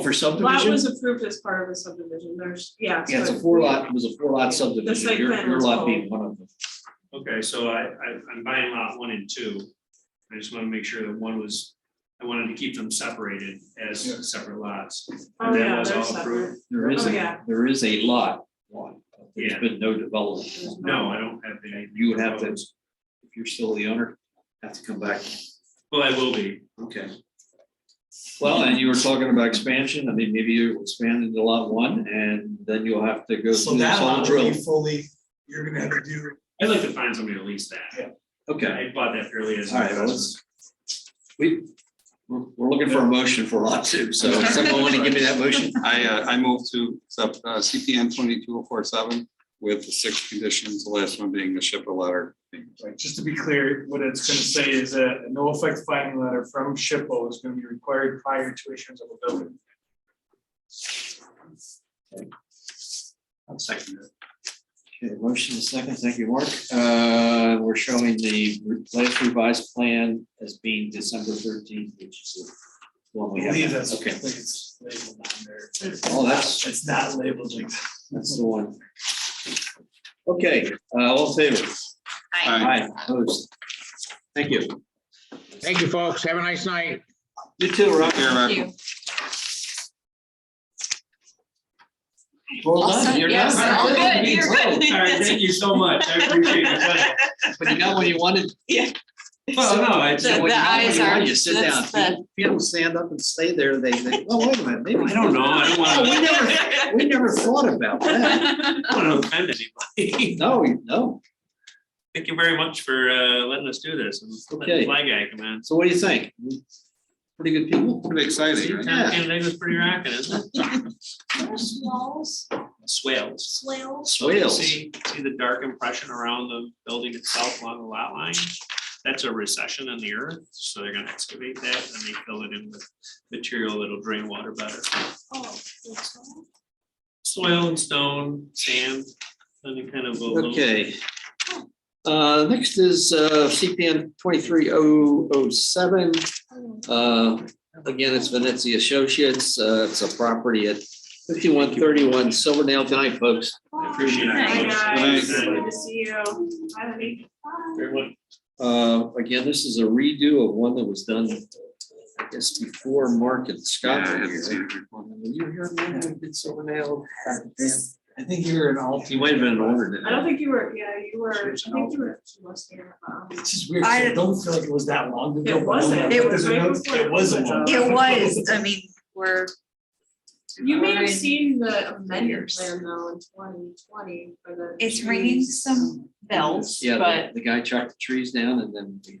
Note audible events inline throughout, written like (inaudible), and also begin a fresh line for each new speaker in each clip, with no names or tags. for
Lot
subdivision?
was approved as part of the subdivision, there's, yeah.
Yeah, it's
so
a four lot, it was a four lot
The
subdivision,
site
your,
plan
your
was
lot
called-
being one of them.
Okay, so I, I, I'm buying lot one and two. I just wanna make sure that one was, I wanted to keep them separated
Yeah.
as separate lots.
Oh,
And that
yeah,
was
they're
all
separate.
approved.
There is,
Oh,
a
yeah.
there is a lot, one, but
Yeah.
there's been no development.
No, I don't have the. idea
You would have
of
to,
those.
if you're still the owner, have to come back.
Well, I will be.
Okay. Well, and you were talking about expansion, I mean, maybe you expand into lot one and then you'll have to go
So
through this
that
whole
lot will
drill.
be fully, you're gonna have to do,
I'd like to find somebody to lease that.
Okay,
I bought that fairly as. an
all right, well,
investment.
let's, we, we're, we're looking for a motion for lot two,
(laughs)
so
So if
someone want
someone wanna
to
give me that motion? I, uh, I move to accept uh, CPN twenty-two oh four seven with the six conditions, the last one being the shipper letter.
Right, just to be clear, what it's gonna say is that a no effect finding letter from SHPO is gonna be required prior to issuance of a building.
I'll second it. Okay, motion is second, thank you, Mark. Uh, we're showing the last revised plan as being December thirteenth, which is. the one we have.
believe that's.
Okay,
It's labeled on there.
oh, that's,
It's not labeled like that.
that's the one. Okay, uh, all in favor? Aye. Opposed? Thank you.
Thank you, folks. Have a nice night.
You too, Rob.
Here,
you.
Well
All
done,
set,
you're
yes,
done.
all good, you're good.
All right, thank you so much. I appreciate your time.
But you got what you wanted.
Well, no,
The-
Well,
I,
the
you got what
eyes
you
are-
wanted, You sit down.
that's the-
If you don't stand up and stay there, they, they, oh, wait a minute,
(laughs)
maybe.
I don't know. I don't
(laughs)
Oh, we
wanna,
never, we never thought
(laughs)
about that.
I don't wanna offend anybody. (laughs)
No, no.
Thank you very much for, uh, letting us do this and letting
Okay.
the flag guy come in.
So what do you think? Pretty good people?
Pretty exciting, right?
Yeah.
And they was pretty rocking, isn't it?
There's walls,
Swales.
swales.
So you
Swales.
See, see the dark impression around the building itself along the lot line? That's a recession in the earth, so they're gonna excavate that and they fill it in with material that'll drain water better.
Oh, that's all.
Soil and stone, sand, any kind of. a little-
Okay. Uh, next is uh, CPN twenty-three oh oh seven.
Oh,
Uh, again, it's Venezia Associates. Uh, it's a property at fifty-one thirty-one Silverdale. Good night, folks.
I appreciate it.
Hi, guys,
Thanks.
good to see you. Bye, Lee.
Everyone,
Uh, again, this is a redo of one that was done, I guess, before Mark and Scott.
Yeah, I
were
haven't seen
here.
it before.
Were You were here when we did Silverdale?
this-
I think you're an alt.
You might have been older than
I don't think you were, yeah, you were, I
Sure, so.
think you were, she was there. um,
It's just weird, 'cause
I-
I don't feel like it was that long ago.
It wasn't.
It
was right before
It was a long.
It was, I mean, we're,
You may have
Right.
seen the amended
Years.
plan though in twenty twenty for the.
it's ringing
trees.
some bells,
Yeah,
but,
the- the guy chopped the trees down and then. we-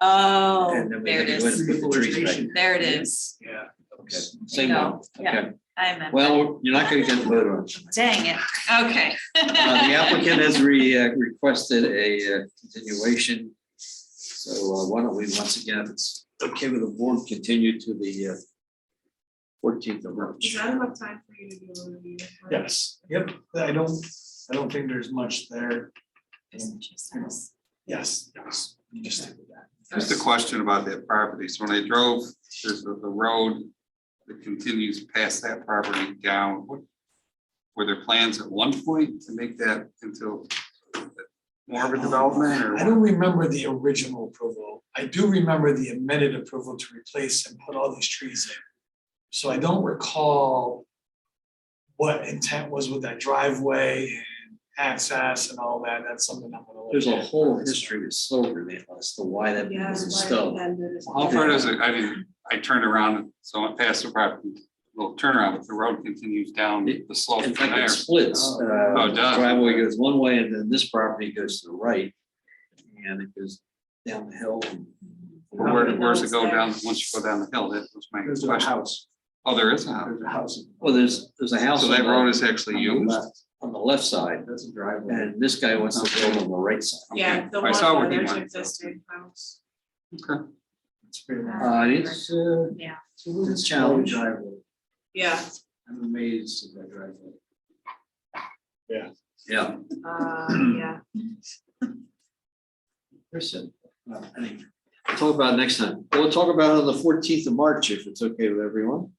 oh,
and then we
there it
had to go in
is,
and put the trees back.
there it is.
Yeah.
Okay, Same one,
No, yeah.
okay.
I meant,
Well, you're not gonna get the vote on. it.
dang it, okay.
Uh, The
(laughs)
applicant has re, uh, requested a uh, continuation. So uh, why don't we, once again, if it's okay with the board, continue to the uh, fourteenth of
Is
March.
that enough time for you to do a review?
Yes, yep, I don't, I don't think there's much there. Yes, yes. Just stick with that.
Just a question about that property. So when I drove, there's the, the road that continues past that property down. What- Were there plans at one point to make that into more of a development or?
I don't remember the original approval. I do remember the amended approval to replace and put all these trees in. So I don't recall what intent was with that driveway and access and all that. That's something I'm gonna. look
There's a
at.
whole history with Silverdale as to why that
Yeah,
was
why
installed.
amended is-
How
How far does it, I mean, I turned around, and so I passed the property, little turnaround, but the road continues down the slope
In
from
fact,
there.
it splits. uh,
Oh, it does.
Driveway goes one way and then this property goes to the right. And it goes down the hill. and-
But Where, where's it go down, once you go down the hill, that was my
There's a
question.
house,
Oh, there is a house.
there's a house.
Well, there's, there's a house.
So
on
that
the-
road is actually
on the
used.
left- On the left side,
That's a driveway.
and this guy wants to build on the right side.
Yeah, the
I
one,
saw where he
there's
wanted.
existing house.
It's pretty much-
Uh, it's, uh,
Yeah.
it's a little challenge.
Driveway.
Yeah,
I'm amazed at that driveway.
Yeah.
(clears throat)
uh, yeah.
Kristen, uh, anyway, We'll Talk about it next time. We'll talk about it on the fourteenth of March, if it's okay with everyone.